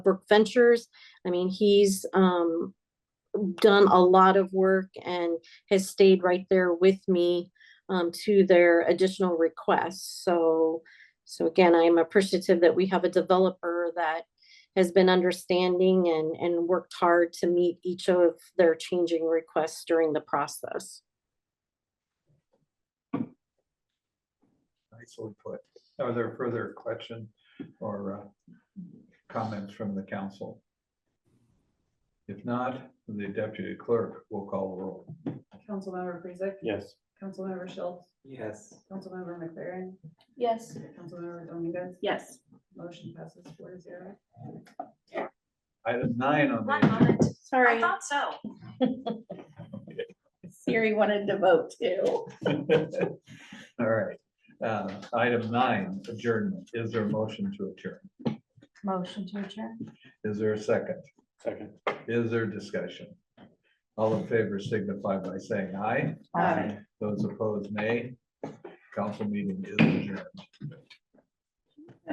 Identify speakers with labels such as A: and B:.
A: Brook Ventures. I mean, he's um done a lot of work and has stayed right there with me um to their additional requests. So so again, I am appreciative that we have a developer that has been understanding and and worked hard to meet each of their changing requests during the process.
B: Nicely put. Are there further questions or uh, comments from the council? If not, the deputy clerk will call the roll.
C: Councilmember Prezek.
D: Yes.
C: Councilmember Schultz.
D: Yes.
C: Councilmember McLaren.
E: Yes.
C: Councilmember Dominguez.
E: Yes.
C: Motion passes four to zero.
B: Item nine on
E: One
B: the,
E: moment. I
A: Sorry,
E: thought so. Siri wanted to vote too.
B: all right. Uh, Item nine, adjournment. Is there a motion to adjourn?
E: Motion to adjourn.
B: Is there a second?
D: Second.
B: Is there discussion? All in favor signify by saying aye.
E: Aye.
B: Those opposed, nay. Council meeting is adjourned.